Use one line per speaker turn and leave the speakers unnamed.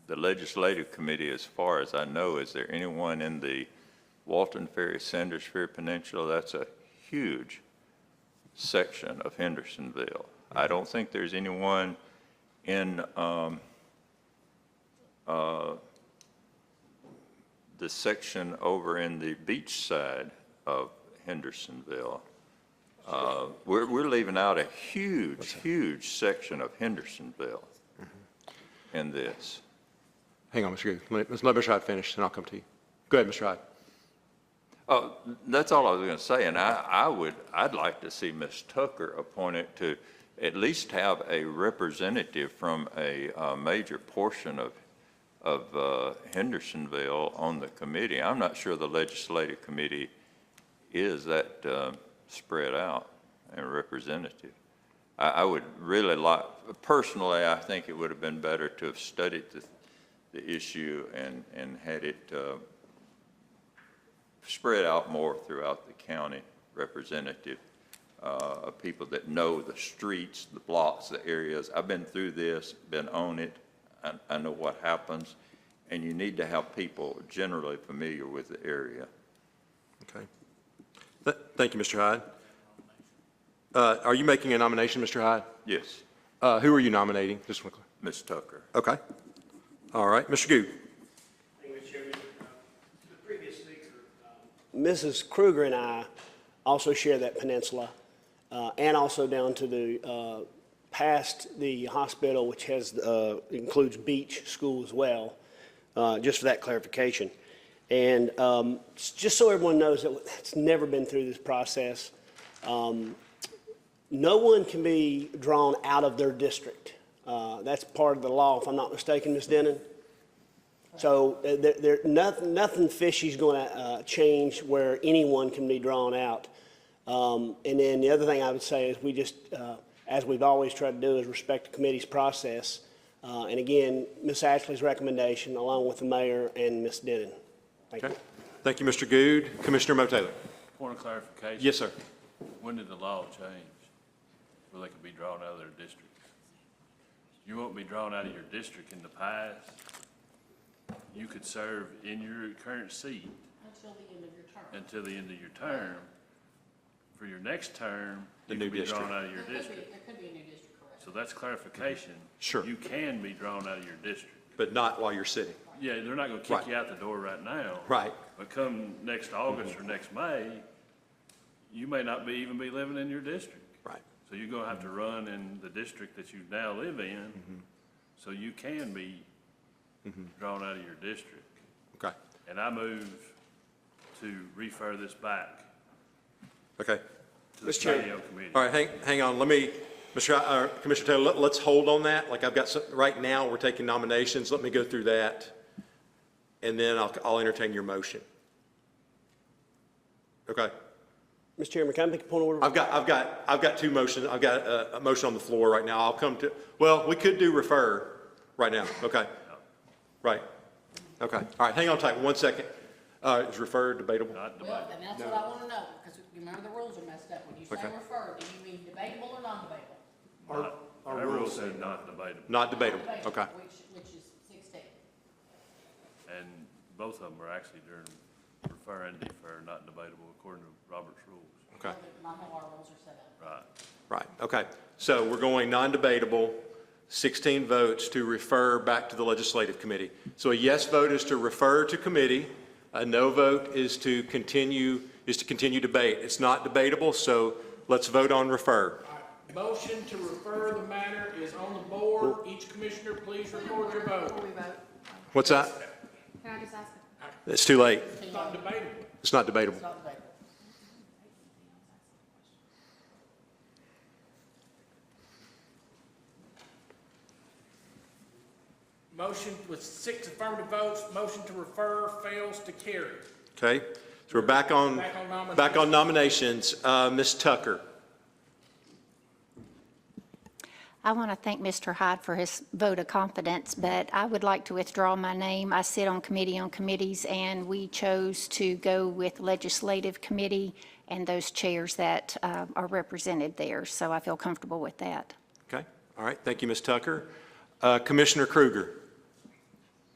the legislative committee, as far as I know, is there anyone in the Walton Ferry, Sanders Ferry Peninsula? That's a huge section of Hendersonville. I don't think there's anyone in um, uh, the section over in the beach side of Hendersonville. Uh, We're, we're leaving out a huge, huge section of Hendersonville in this.
Hang on, Mr. Goode. Let me- let's let Mr. Hyde finish, and I'll come to you. Go ahead, Mr. Hyde.
Oh, that's all I was going to say, and I, I would, I'd like to see Ms. Tucker appointed to at least have a representative from a uh, major portion of, of uh, Hendersonville on the committee. I'm not sure the legislative committee is that uh, spread out and representative. I, I would really like, personally, I think it would have been better to have studied the, the issue and, and had it uh, spread out more throughout the county representative uh, of people that know the streets, the blocks, the areas. I've been through this, been on it, I, I know what happens. And you need to have people generally familiar with the area.
Okay. Th- Thank you, Mr. Hyde. Uh, Are you making a nomination, Mr. Hyde?
Yes,
Uh, Who are you nominating? Just one,
Ms. Tucker.
okay. All right, Mr. Goode.
Thank you, Mr. Chairman. Uh, to The previous speaker. um, Mrs. Kruger and I also share that peninsula, uh, and also down to the, uh, past the hospital, which has, uh, includes Beach School as well, uh, just for that clarification. And um, s- just so everyone knows that it's never been through this process, um, no one can be drawn out of their district. Uh, That's part of the law, if I'm not mistaken, Ms. Denon? So uh, there, there, nothing, nothing fishy's going to uh, change where anyone can be drawn out. Um, And then the other thing I would say is we just, uh, as we've always tried to do, is respect the committee's process. Uh, And again, Ms. Ashley's recommendation, along with the mayor and Ms. Denon. Thank you.
Okay. Thank you, Mr. Goode. Commissioner Mo Taylor.
Point of clarification.
Yes, sir.
When did the law change? Where they could be drawn out of their districts? You won't be drawn out of your district in the past. You could serve in your current seat
Until the end of your term.
until the end of your term. For your next term,
The
you
new
could be drawn
district.
out of your
There could be-
district.
There could be a new district, correct?
So that's clarification.
Sure.
You can be drawn out of your district.
But not while you're sitting.
Yeah, they're not gonna
Right.
kick you out the door right now.
Right.
But come next August or next May, you may not be, even be living in your district.
Right.
So you're gonna have to run in the district that you now live in, so you can be drawn out of your district.
Okay.
And I move to refer this back
Okay.
to the
Mr. Chair.
PDO committee.
All right, hang, hang on, let me, Mr. Hy- uh, Commissioner Taylor, let- let's hold on that. Like, I've got some, right now, we're taking nominations, let me go through that, and then I'll, I'll entertain your motion. Okay,
Mr. Chairman, can I make a point of order?
I've got, I've got, I've got two motions, I've got a, a motion on the floor right now, I'll come to, well, we could do refer right now, okay? Right, okay, all right, hang on tight, one second. Uh, is refer debatable?
Not debate.
Well, and that's what I want to know, because you remember the rules are messed up. When you say
Okay.
refer, do you mean debatable or non-debatable?
Not- Our rule said not debatable,
Not debatable, okay,
Which, which is sixteen.
and both of them are actually during refer and defer, not debatable according to Robert's rules.
okay.
Not how our rules are set up.
Right.
Right, okay. So we're going non-debatable, 16 votes to refer back to the legislative committee. So a yes vote is to refer to committee, a no vote is to continue, is to continue debate. It's not debatable, so let's vote on refer.
Motion to refer the matter is on the board. Each commissioner, please record your vote.
What's that?
Can I just ask,
It's too late.
It's not debatable.
It's not debatable.
It's not debatable.
Motion with six affirmative votes, motion to refer fails to carry.
Okay? So we're back on,
Back on nominations.
back on nominations. Uh, Ms. Tucker.
I want to thank Mr. Hyde for his vote of confidence, but I would like to withdraw my name. I sit on committee on committees, and we chose to go with legislative committee and those chairs that uh, are represented there, so I feel comfortable with that.
Okay, all right, thank you, Ms. Tucker. Uh, Commissioner Kruger.